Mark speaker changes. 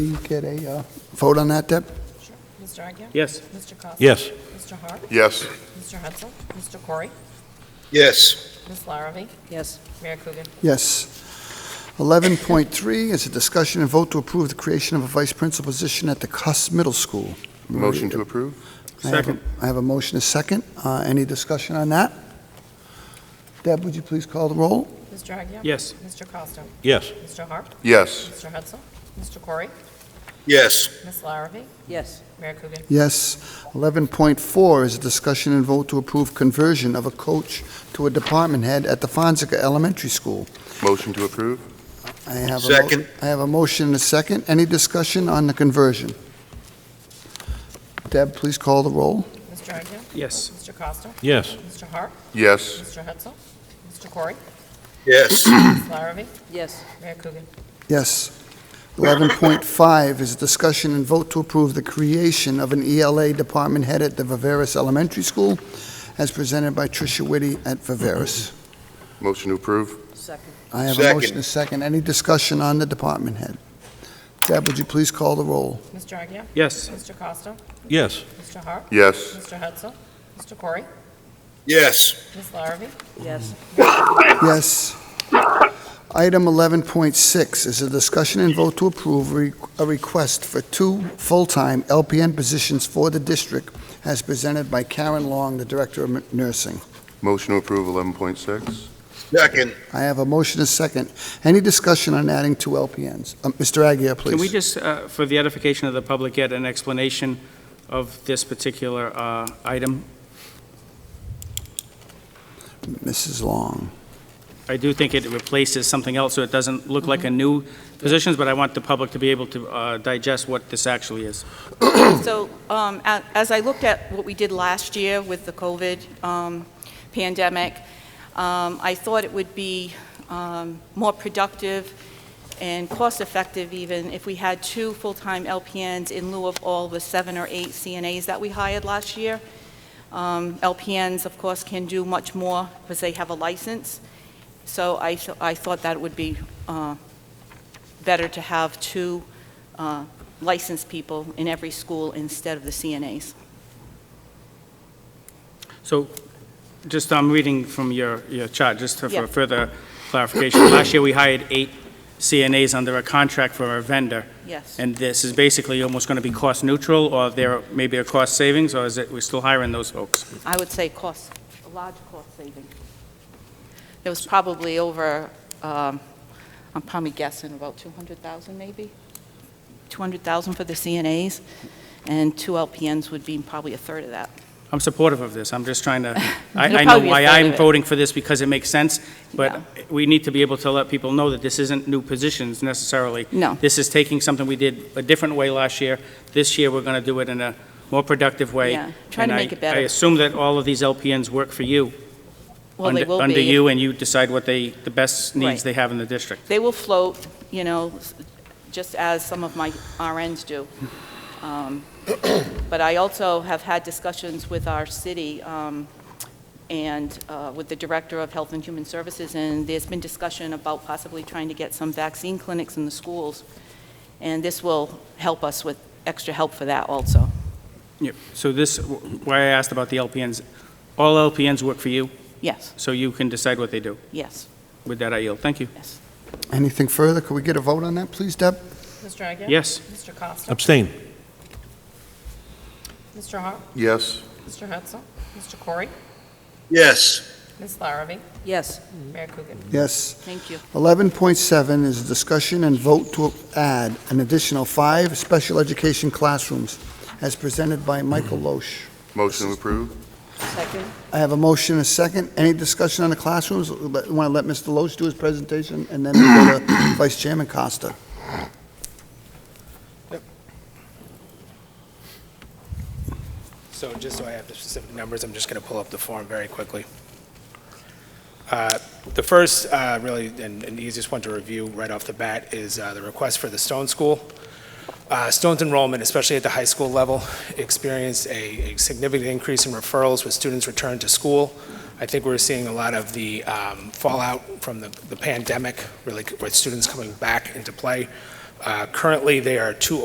Speaker 1: we get a uh, vote on that, Deb?
Speaker 2: Sure. Mr. Agia?
Speaker 3: Yes.
Speaker 2: Mr. Costa?
Speaker 4: Yes.
Speaker 2: Mr. Hart?
Speaker 5: Yes.
Speaker 2: Mr. Hudson? Mr. Corey?
Speaker 5: Yes.
Speaker 2: Ms. Larrabee?
Speaker 6: Yes.
Speaker 2: Mayor Coogan?
Speaker 1: Yes. 11.3 is a discussion and vote to approve the creation of a vice principal position at the Cuss Middle School.
Speaker 5: Motion to approve?
Speaker 1: I have a-
Speaker 3: Second.
Speaker 1: I have a motion, a second. Uh, Any discussion on that? Deb, would you please call the roll?
Speaker 2: Mr. Agia?
Speaker 3: Yes.
Speaker 2: Mr. Costa?
Speaker 4: Yes.
Speaker 2: Mr. Hart?
Speaker 5: Yes.
Speaker 2: Mr. Hudson? Mr. Corey?
Speaker 5: Yes.
Speaker 2: Ms. Larrabee?
Speaker 6: Yes.
Speaker 2: Mayor Coogan?
Speaker 1: Yes. 11.4 is a discussion and vote to approve conversion of a coach to a department head at the Fonseca Elementary School.
Speaker 5: Motion to approve?
Speaker 1: I have a mo-
Speaker 5: Second.
Speaker 1: I have a motion and a second. Any discussion on the conversion? Deb, please call the roll.
Speaker 2: Mr. Agia?
Speaker 3: Yes.
Speaker 2: Mr. Costa?
Speaker 4: Yes.
Speaker 2: Mr. Hart?
Speaker 5: Yes.
Speaker 2: Mr. Hudson? Mr. Corey?
Speaker 5: Yes.
Speaker 2: Ms. Larrabee?
Speaker 6: Yes.
Speaker 2: Mayor Coogan?
Speaker 1: Yes. 11.5 is a discussion and vote to approve the creation of an ELA department head at the Viveris Elementary School, as presented by Tricia Whitty at Viveris.
Speaker 5: Motion to approve?
Speaker 6: Second.
Speaker 1: I have a
Speaker 5: Second.
Speaker 1: motion and a second. Any discussion on the department head? Deb, would you please call the roll?
Speaker 2: Mr. Agia?
Speaker 3: Yes.
Speaker 2: Mr. Costa?
Speaker 4: Yes.
Speaker 2: Mr. Hart?
Speaker 5: Yes.
Speaker 2: Mr. Hudson? Mr. Corey?
Speaker 5: Yes.
Speaker 2: Ms. Larrabee?
Speaker 6: Yes.
Speaker 1: Yes. Item 11.6 is a discussion and vote to approve re- a request for two full-time LPN positions for the district as presented by Karen Long, the Director of Nursing.
Speaker 5: Motion to approve 11.6?
Speaker 7: Second,
Speaker 1: I have a motion and a second. Any discussion on adding two LPNs? Uh, Mr. Agia, please.
Speaker 3: Can we just, uh, for the edification of the public, get an explanation of this particular uh, item?
Speaker 1: Mrs. Long.
Speaker 3: I do think it replaces something else, so it doesn't look like a
Speaker 1: Mm-hmm.
Speaker 3: new position, but I want the public to be able to uh, digest what this actually is.
Speaker 8: So um, a- as I looked at what we did last year with the COVID um, pandemic, um, I thought it would be um, more productive and cost-effective even if we had two full-time LPNs in lieu of all the seven or eight CNAs that we hired last year. Um, LPNs, of course, can do much more because they have a license. So I th- I thought that it would be uh, better to have two uh, licensed people in every school instead of the CNAs.
Speaker 3: So, just, I'm reading from your, your chart, just to-
Speaker 8: Yeah.
Speaker 3: for further clarification. Last year, we hired eight CNAs under a contract for a vendor,
Speaker 8: Yes.
Speaker 3: and this is basically almost going to be cost neutral, or there may be a cost savings, or is it, we're still hiring those folks?
Speaker 8: I would say cost, a large cost saving. There was probably over, um, I'm probably guessing about 200,000 maybe? 200,000 for the CNAs, and two LPNs would be probably a third of that.
Speaker 3: I'm supportive of this, I'm just trying to,
Speaker 8: It'll
Speaker 3: Uh, I, I know
Speaker 8: probably be a
Speaker 3: why
Speaker 8: third
Speaker 3: I'm
Speaker 8: of it.
Speaker 3: voting for this, because it makes sense,
Speaker 8: Yeah.
Speaker 3: but we need to be able to let people know that this isn't new positions necessarily.
Speaker 8: No.
Speaker 3: This is taking something we did a different way last year, this year, we're going to do it in a more productive way.
Speaker 8: Yeah, trying to
Speaker 3: And I-
Speaker 8: make it better.
Speaker 3: I assume that all of these LPNs work for you,
Speaker 8: Well, they
Speaker 3: under-
Speaker 8: will be.
Speaker 3: Under you, and you decide what they, the best needs
Speaker 8: Right.
Speaker 3: they have in the district.
Speaker 8: They will float, you know, s- just as some of my RNs do. Um, But I also have had discussions with our city um, and uh, with the Director of Health and Human Services, and there's been discussion about possibly trying to get some vaccine clinics in the schools, and this will help us with extra help for that also.
Speaker 3: Yep. So this, why I asked about the LPNs, all LPNs work for you,
Speaker 8: Yes,
Speaker 3: so you can decide what they do.
Speaker 8: yes,
Speaker 3: With that, I yield. Thank you.
Speaker 8: yes.
Speaker 1: Anything further? Could we get a vote on that, please, Deb?
Speaker 2: Mr. Agia?
Speaker 3: Yes.
Speaker 2: Mr. Costa?
Speaker 4: Abstain.
Speaker 2: Mr. Hart?
Speaker 5: Yes.
Speaker 2: Mr. Hudson? Mr. Corey?
Speaker 7: yes,
Speaker 2: Ms. Larrabee?
Speaker 6: Yes.
Speaker 2: Mayor Coogan?
Speaker 1: Yes.
Speaker 8: Thank you.
Speaker 1: 11.7 is a discussion and vote to add an additional five special education classrooms, as presented by Michael Loesch.
Speaker 5: Motion to approve?
Speaker 6: Second.
Speaker 1: I have a motion, and a second. Any discussion on the classrooms? Want to let Mr. Loesch do his presentation, and then we'll go to Vice Chairman Costa.
Speaker 9: So just so I have the specific numbers, I'm just going to pull up the form very quickly. Uh, The first, uh, really, and and the easiest one to review right off the bat is uh, the request for the Stone School. Uh, Stone's enrollment, especially at the high school level, experienced a a significant increase in referrals with students returned to school. I think we're seeing a lot of the um, fallout from the the pandemic, really, with students coming back into play. Uh, Currently, they are two